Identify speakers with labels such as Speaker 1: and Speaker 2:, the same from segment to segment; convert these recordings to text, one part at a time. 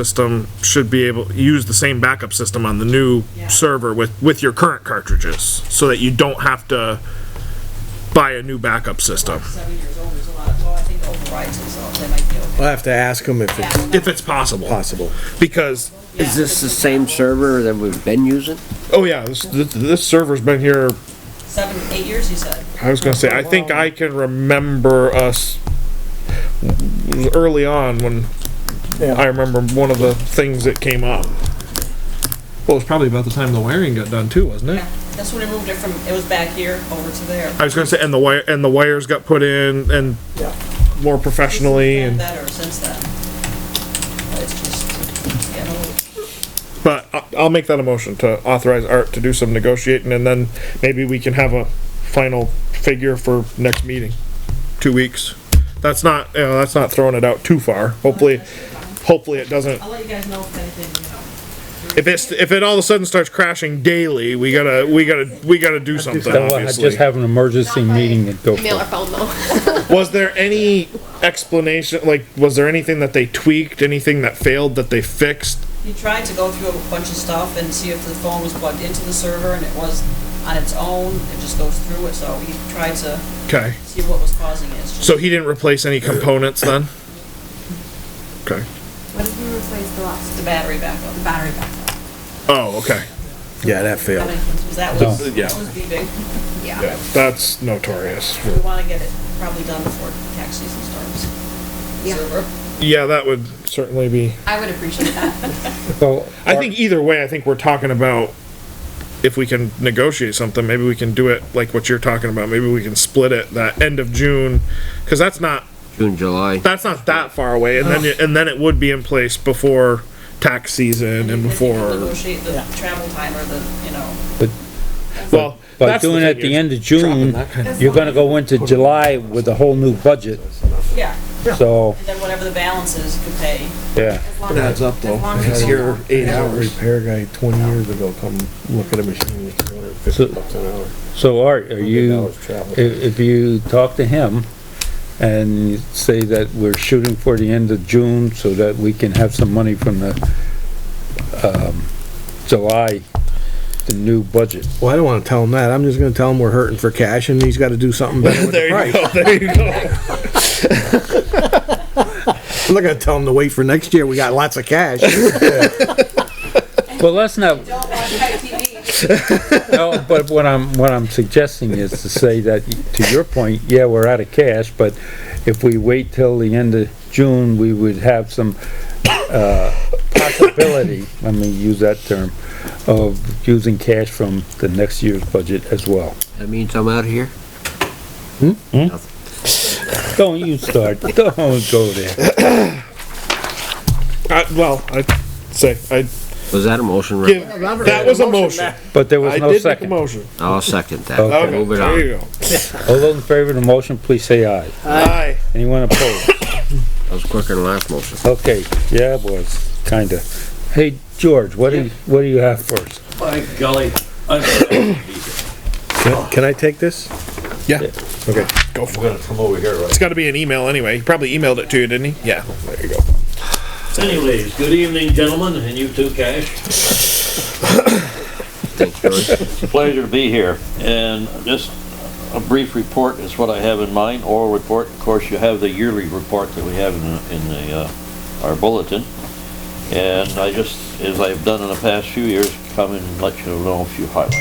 Speaker 1: system should be able, use the same backup system on the new server with, with your current cartridges, so that you don't have to buy a new backup system,
Speaker 2: seven years old, there's a lot, well, I think overrides and so they might be okay.
Speaker 3: I'll have to ask them if it's
Speaker 1: if it's possible,
Speaker 3: possible.
Speaker 1: because,
Speaker 4: Is this the same server that we've been using?
Speaker 1: oh yeah, this, this this server's been here
Speaker 2: Seven, eight years, you said?
Speaker 1: I was gonna say, I think I can remember us early on when I remember one of the things that came up. Well, it was probably about the time the wiring got done too, wasn't it?
Speaker 2: Yeah, that's when I moved it from, it was back here over to there.
Speaker 1: I was gonna say, and the wire, and the wires got put in and more professionally and,
Speaker 2: Better since then. But it's just, you know,
Speaker 1: but I, I'll make that a motion to authorize Art to do some negotiating and then maybe we can have a final figure for next meeting. Two weeks. That's not, you know, that's not throwing it out too far. Hopefully, hopefully it doesn't
Speaker 2: I'll let you guys know if anything, you know.
Speaker 1: If it's, if it all of a sudden starts crashing daily, we gotta, we gotta, we gotta do something,
Speaker 5: Just
Speaker 1: obviously.
Speaker 5: have an emergency meeting and go for
Speaker 6: Email or
Speaker 5: it.
Speaker 6: phone though.
Speaker 1: Was there any explanation, like, was there anything that they tweaked, anything that failed that they fixed?
Speaker 2: He tried to go through a bunch of stuff and see if the phone was plugged into the server and it was on its own, it just goes through it, so he tried to
Speaker 1: Okay,
Speaker 2: see what was causing it. It's just-
Speaker 1: so he didn't replace any components then? Okay,
Speaker 6: What did we replace the last?
Speaker 2: The battery backup.
Speaker 6: The battery backup.
Speaker 1: oh, okay,
Speaker 3: Yeah, that
Speaker 2: That
Speaker 3: failed.
Speaker 2: makes sense, 'cause That was,
Speaker 1: Yeah.
Speaker 2: that was the big,
Speaker 1: yeah, that's notorious.
Speaker 2: we wanna get it probably done before tax season starts.
Speaker 6: Yeah.
Speaker 2: Server.
Speaker 1: Yeah, that would certainly be,
Speaker 6: I would appreciate that.
Speaker 5: So,
Speaker 1: I think either way, I think we're talking about if we can negotiate something, maybe we can do it like what you're talking about, maybe we can split it that end of June, cause that's not
Speaker 4: June, July?
Speaker 1: that's not that far away, and then and then it would be in place before tax season and
Speaker 2: If you can
Speaker 1: before.
Speaker 2: Negotiate the travel time or the, you know,
Speaker 1: Well,
Speaker 5: by
Speaker 1: that's the
Speaker 5: doing it at
Speaker 1: thing
Speaker 5: the
Speaker 1: is-
Speaker 5: end of June, you're gonna go into July with a whole new budget,
Speaker 2: yeah,
Speaker 5: so,
Speaker 2: and then whatever the balance is, you could pay.
Speaker 5: yeah.
Speaker 6: As long as-
Speaker 3: Adds up though,
Speaker 6: as long as
Speaker 3: because
Speaker 6: it's
Speaker 3: here,
Speaker 6: on-
Speaker 3: eight hours. Repair guy twenty years ago come look at a machine, it's two hundred and fifty
Speaker 5: So-
Speaker 3: bucks an hour.
Speaker 5: So Art, are you,
Speaker 3: $100 travel.
Speaker 5: if, if you talk to him and you say that we're shooting for the end of June so that we can have some money from the, um, July, the new budget.
Speaker 3: Well, I don't wanna tell him that. I'm just gonna tell him we're hurting for cash and he's gotta do something better with the
Speaker 1: There you
Speaker 3: price.
Speaker 1: go. There you go.
Speaker 3: I'm not gonna tell him to wait for next year. We got lots of cash.
Speaker 5: Well, let's not,
Speaker 2: Don't watch TV.
Speaker 5: No, but what I'm, what I'm suggesting is to say that, to your point, yeah, we're out of cash, but if we wait till the end of June, we would have some, uh, possibility, let me use that term, of using cash from the next year's budget as well.
Speaker 4: That means I'm out of here?
Speaker 5: Don't you start, don't go there.
Speaker 1: I, well, I say I
Speaker 4: Was that a motion,
Speaker 1: give.
Speaker 4: Rob?
Speaker 1: That was a motion.
Speaker 5: But there was
Speaker 1: I
Speaker 5: no
Speaker 1: did make a
Speaker 5: second. All
Speaker 1: motion.
Speaker 4: I'll second that.
Speaker 5: Okay.
Speaker 1: Okay,
Speaker 4: Move it
Speaker 1: there you
Speaker 4: on.
Speaker 1: go.
Speaker 5: those in favor of the motion, please say aye.
Speaker 1: Aye.
Speaker 5: Anyone opposed?
Speaker 4: That was quicker than last motion.
Speaker 5: Okay, yeah, it was, kinda. Hey, George, what do, you- what do you have first?
Speaker 7: By golly, I'm
Speaker 3: Can I take this?
Speaker 1: Yeah.
Speaker 3: Okay.
Speaker 1: Go for it.
Speaker 7: gonna come over here, right?
Speaker 1: It's got to be an email anyway. He probably emailed it to you, didn't he? Yeah. There you go.
Speaker 7: Anyways, good evening, gentlemen, and you too, Cash.
Speaker 4: Thanks, George.
Speaker 7: It's a pleasure to be here, and just a brief report is what I have in mind, oral report. Of course, you have the yearly report that we have in, the- in the, uh, our bulletin. And I just, as I've done in the past few years, come and let you know a few highlights.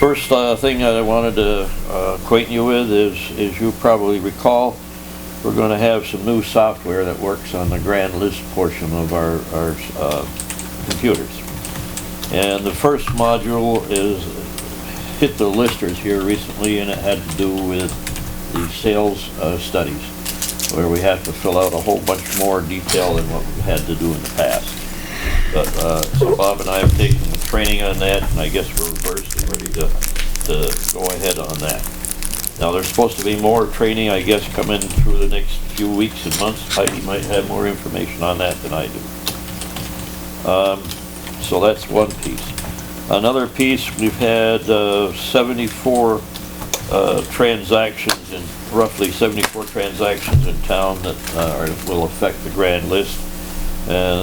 Speaker 7: First, uh, thing that I wanted to uh, acquaint you with is, as you probably recall, we're gonna have some new software that works on the grand list portion of our, our, uh, computers. And the first module is, hit the listers here recently, and it had to do with the sales uh, studies, where we have to fill out a whole bunch more detail than what we had to do in the past. But, uh, so Bob and I have taken the training on that, and I guess we're reversed and ready to, to go ahead on that. Now, there's supposed to be more training, I guess, coming through the next few weeks and months. Heidi might have more information on that than I do. So that's one piece. Another piece, we've had uh, 74 uh, transactions and roughly 74 transactions in town that uh, are- will affect the grand list. And